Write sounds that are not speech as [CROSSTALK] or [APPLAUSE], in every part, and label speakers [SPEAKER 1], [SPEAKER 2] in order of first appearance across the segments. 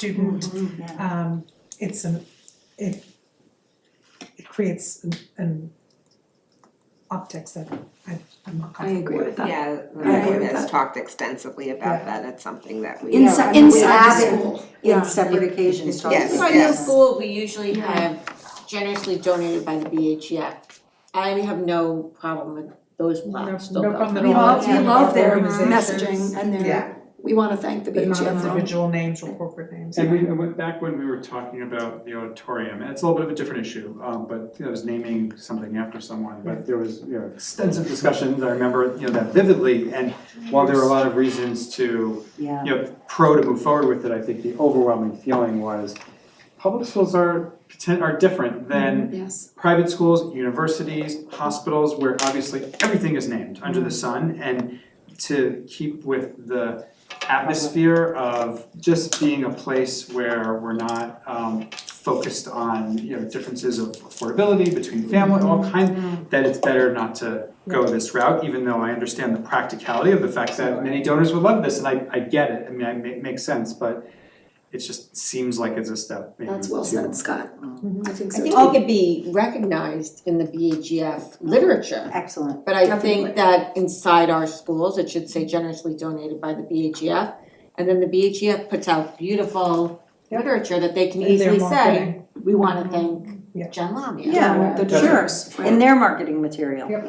[SPEAKER 1] student,
[SPEAKER 2] Mm-hmm, yeah.
[SPEAKER 1] um, it's an, it, it creates an- an optics that I, I'm not
[SPEAKER 2] I
[SPEAKER 1] comfortable
[SPEAKER 2] agree with that.
[SPEAKER 3] Yeah,
[SPEAKER 2] I agree
[SPEAKER 3] Lorraine
[SPEAKER 2] with
[SPEAKER 3] has
[SPEAKER 2] that.
[SPEAKER 3] talked extensively
[SPEAKER 1] Yeah.
[SPEAKER 3] about that, it's something that we.
[SPEAKER 2] Inside-
[SPEAKER 4] Yeah,
[SPEAKER 2] inside
[SPEAKER 4] we
[SPEAKER 2] the
[SPEAKER 4] have
[SPEAKER 2] school.
[SPEAKER 4] it
[SPEAKER 2] Yeah.
[SPEAKER 4] In separate occasions, talking
[SPEAKER 3] Yes,
[SPEAKER 4] about
[SPEAKER 5] Inside
[SPEAKER 3] yes.
[SPEAKER 5] the
[SPEAKER 4] this.
[SPEAKER 5] school, we usually
[SPEAKER 2] Yeah.
[SPEAKER 5] have generously donated by the BHF. I have no problem with those plaques
[SPEAKER 1] No
[SPEAKER 5] still
[SPEAKER 1] problem
[SPEAKER 5] going.
[SPEAKER 1] at
[SPEAKER 2] We
[SPEAKER 1] all.
[SPEAKER 2] love, we
[SPEAKER 1] Yeah.
[SPEAKER 2] love their
[SPEAKER 1] Organizations.
[SPEAKER 2] messaging and
[SPEAKER 3] Yeah.
[SPEAKER 2] their, we wanna thank the
[SPEAKER 1] But not
[SPEAKER 2] BHF.
[SPEAKER 1] individual names or corporate names.
[SPEAKER 6] And we, and went back when we were talking about the auditorium, and it's a little bit of a different issue, um, but you know, it was naming something after someone, but there was, you know, extensive discussions, I remember, you know, that vividly, and while there were a lot of reasons to,
[SPEAKER 4] Yeah.
[SPEAKER 6] you know, pro to move forward with it, I think the overwhelming feeling was public schools are poten- are different than
[SPEAKER 2] Yes,
[SPEAKER 6] private schools, universities, hospitals, where obviously everything is named under the
[SPEAKER 2] Mm-hmm.
[SPEAKER 6] sun and to keep with the atmosphere of just being a place where we're not um focused on, you know, differences of affordability between family, all
[SPEAKER 2] Mm-hmm.
[SPEAKER 6] kind, that it's better not to go this route, even though I understand the practicality of the fact that many donors would love this and I I get it, I mean, I ma- makes sense, but it just seems like it's a step maybe
[SPEAKER 2] that's well
[SPEAKER 6] too
[SPEAKER 2] said, Scott. I think
[SPEAKER 5] I
[SPEAKER 2] so.
[SPEAKER 5] think it could be recognized in the BHF literature.
[SPEAKER 4] Excellent.
[SPEAKER 5] But I
[SPEAKER 2] Definitely.
[SPEAKER 5] think that inside our schools, it should say generously donated by the BHF. And then the BHF puts out beautiful literature that they can
[SPEAKER 1] And they're
[SPEAKER 5] easily say,
[SPEAKER 1] marketing. Mm-hmm.
[SPEAKER 5] we wanna thank
[SPEAKER 1] Yeah.
[SPEAKER 5] Jen Lamia.
[SPEAKER 4] Yeah,
[SPEAKER 2] The
[SPEAKER 6] Doesn't-
[SPEAKER 2] jurors.
[SPEAKER 4] in their marketing material.
[SPEAKER 1] Yep.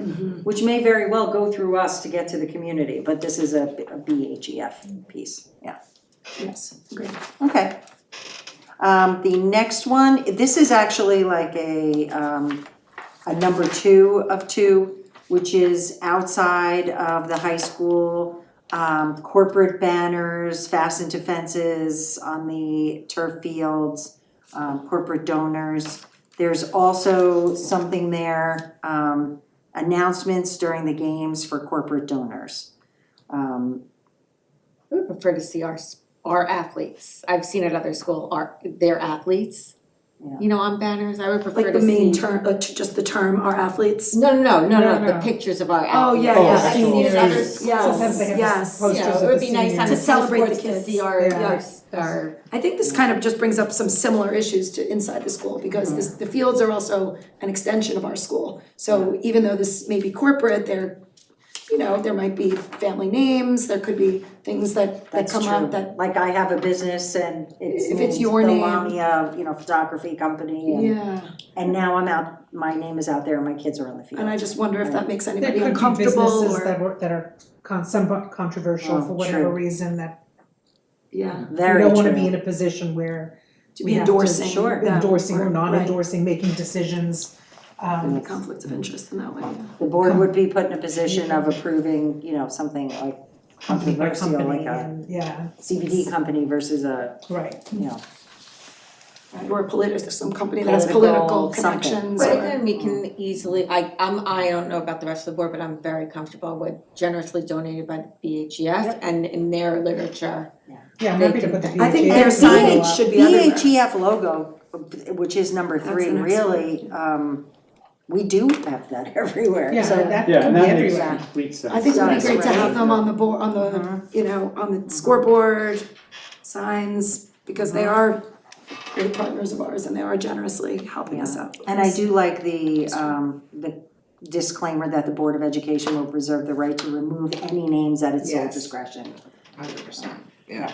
[SPEAKER 4] Which may very well go through us to get to the community, but this is a a BHEF piece, yeah,
[SPEAKER 2] Yes, great.
[SPEAKER 4] okay. Um, the next one, this is actually like a, um, a number two of two, which is outside of the high school, um, corporate banners fastened to fences on the turf fields, um, corporate donors. There's also something there, um, announcements during the games for corporate donors. Um,
[SPEAKER 5] I would prefer to see our, s- our athletes, I've seen at other school, our, their athletes,
[SPEAKER 4] Yeah.
[SPEAKER 5] you know, on banners, I would prefer
[SPEAKER 2] Like the
[SPEAKER 5] to see.
[SPEAKER 2] main term, uh, t- just the term, our athletes.
[SPEAKER 5] No, no, no, no,
[SPEAKER 1] No,
[SPEAKER 5] no, the
[SPEAKER 1] no.
[SPEAKER 5] pictures of our
[SPEAKER 2] Oh,
[SPEAKER 5] athletes.
[SPEAKER 2] yeah,
[SPEAKER 6] Oh,
[SPEAKER 2] yeah.
[SPEAKER 6] I've seen it at other
[SPEAKER 2] Yes,
[SPEAKER 1] Sometimes they have
[SPEAKER 2] yes,
[SPEAKER 1] posters
[SPEAKER 2] yes.
[SPEAKER 1] of the
[SPEAKER 5] Yeah, it would be nice on
[SPEAKER 1] seniors.
[SPEAKER 5] the
[SPEAKER 2] To celebrate the
[SPEAKER 5] sports to see
[SPEAKER 2] kids.
[SPEAKER 5] our,
[SPEAKER 1] Yeah.
[SPEAKER 5] our, our,
[SPEAKER 2] I think this kind of just brings up some similar issues to inside the school, because this, the fields are also an extension of our school. So even though this may be corporate, there, you know, there might be family names, there could be things that, that
[SPEAKER 4] That's
[SPEAKER 2] come
[SPEAKER 4] true.
[SPEAKER 2] up that,
[SPEAKER 4] Like I have a business and it's
[SPEAKER 2] If it's
[SPEAKER 4] named
[SPEAKER 2] your
[SPEAKER 4] the
[SPEAKER 2] name.
[SPEAKER 4] Lamia, you know, photography company and
[SPEAKER 2] yeah.
[SPEAKER 4] and now I'm out, my name is out there and my kids are on the field.
[SPEAKER 2] And I just wonder if that makes
[SPEAKER 1] There
[SPEAKER 2] anybody
[SPEAKER 1] could be
[SPEAKER 2] uncomfortable or.
[SPEAKER 1] businesses that were, that are con- somewhat controversial
[SPEAKER 4] Oh,
[SPEAKER 1] for whatever
[SPEAKER 4] true.
[SPEAKER 1] reason that
[SPEAKER 2] Yeah,
[SPEAKER 1] we
[SPEAKER 4] Very
[SPEAKER 1] don't wanna
[SPEAKER 4] true.
[SPEAKER 1] be in a position where
[SPEAKER 2] to
[SPEAKER 1] we
[SPEAKER 2] be
[SPEAKER 1] have to
[SPEAKER 2] endorsing.
[SPEAKER 4] sure,
[SPEAKER 2] that,
[SPEAKER 1] endorsing or
[SPEAKER 2] right,
[SPEAKER 1] not endorsing, making decisions, um,
[SPEAKER 2] Right, conflicts of interest in that way.
[SPEAKER 4] The board would be put in a position of approving, you know, something like controversial, like
[SPEAKER 1] company
[SPEAKER 4] a
[SPEAKER 1] and, yeah,
[SPEAKER 4] CBD company versus a,
[SPEAKER 1] right.
[SPEAKER 4] you know,
[SPEAKER 2] Right, Or political, some company that has
[SPEAKER 4] Political
[SPEAKER 2] political
[SPEAKER 4] something.
[SPEAKER 2] connections
[SPEAKER 5] right,
[SPEAKER 2] or,
[SPEAKER 5] then we can easily, I, I'm, I don't know about the rest of the board, but I'm very comfortable with generously donated by the BHF and in their literature.
[SPEAKER 1] Yeah, I'm
[SPEAKER 5] They
[SPEAKER 1] happy to
[SPEAKER 5] can-
[SPEAKER 1] put the
[SPEAKER 2] I think
[SPEAKER 1] VHA
[SPEAKER 2] their
[SPEAKER 1] logo
[SPEAKER 2] signage
[SPEAKER 1] up.
[SPEAKER 2] should be everywhere.
[SPEAKER 4] EHEF E logo, which is number
[SPEAKER 2] That's
[SPEAKER 4] three,
[SPEAKER 2] the next one.
[SPEAKER 4] really, um, we do have that [LAUGHS] everywhere,
[SPEAKER 1] Yeah,
[SPEAKER 4] so.
[SPEAKER 1] that
[SPEAKER 6] Yeah,
[SPEAKER 1] could
[SPEAKER 6] and
[SPEAKER 1] be
[SPEAKER 6] that makes
[SPEAKER 1] everywhere.
[SPEAKER 6] complete sense.
[SPEAKER 2] I think it would be
[SPEAKER 4] Yes,
[SPEAKER 2] great to
[SPEAKER 4] right.
[SPEAKER 2] have them on the board, on
[SPEAKER 4] Uh-huh.
[SPEAKER 2] the, you know, on the scoreboard, signs, because they
[SPEAKER 4] Uh-huh.
[SPEAKER 2] are great partners of ours and they are generously helping us out.
[SPEAKER 4] And I do like the um the disclaimer that the Board of Education will preserve the right to remove any names at its sole
[SPEAKER 3] Yes.
[SPEAKER 4] discretion.
[SPEAKER 3] Hundred percent.
[SPEAKER 4] Yeah,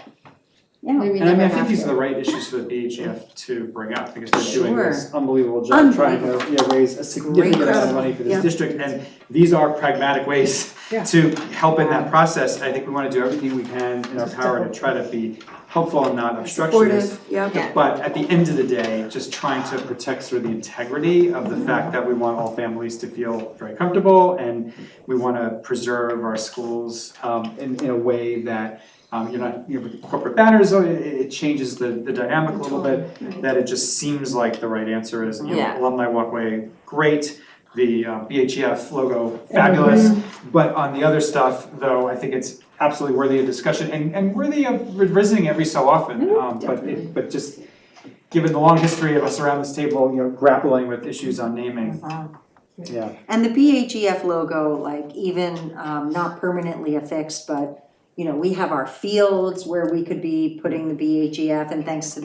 [SPEAKER 5] Maybe
[SPEAKER 6] And I mean,
[SPEAKER 5] never
[SPEAKER 6] I think
[SPEAKER 5] have
[SPEAKER 6] these
[SPEAKER 5] to.
[SPEAKER 6] are the right issues for the BHF to bring up, because they're doing
[SPEAKER 4] Sure.
[SPEAKER 6] this unbelievable job trying to, yeah, raise a significant amount of
[SPEAKER 2] Incredible.
[SPEAKER 6] money for
[SPEAKER 2] Yeah.
[SPEAKER 6] this district, and these are pragmatic ways
[SPEAKER 1] Yeah.
[SPEAKER 6] [LAUGHS] to help in that process, I think we wanna do everything we can in our power to try to be helpful and not obstructionist.
[SPEAKER 2] Supportive, yeah,
[SPEAKER 3] Yeah.
[SPEAKER 6] But at the end of the day, just trying to protect sort of the integrity of the fact that we want all families to feel very comfortable and we wanna preserve our schools um in in a way that um you're not, you know, with corporate banners, oh, it it changes the the dynamic a little bit, that it just seems like the right answer is, you know,
[SPEAKER 3] Yeah.
[SPEAKER 6] alumni walkway, great. The uh BHF logo, fabulous,
[SPEAKER 3] Mm-hmm.
[SPEAKER 6] but on the other stuff, though, I think it's absolutely worthy of discussion and and worthy of revisiting every so often,
[SPEAKER 3] Mm-hmm.
[SPEAKER 6] um but it, but just given the long history of us around this table, you know, grappling with issues on naming, yeah.
[SPEAKER 4] E and the BHEF logo, like even um not permanently affixed, but you know, we have our fields where we could be putting the BHEF E and thanks to the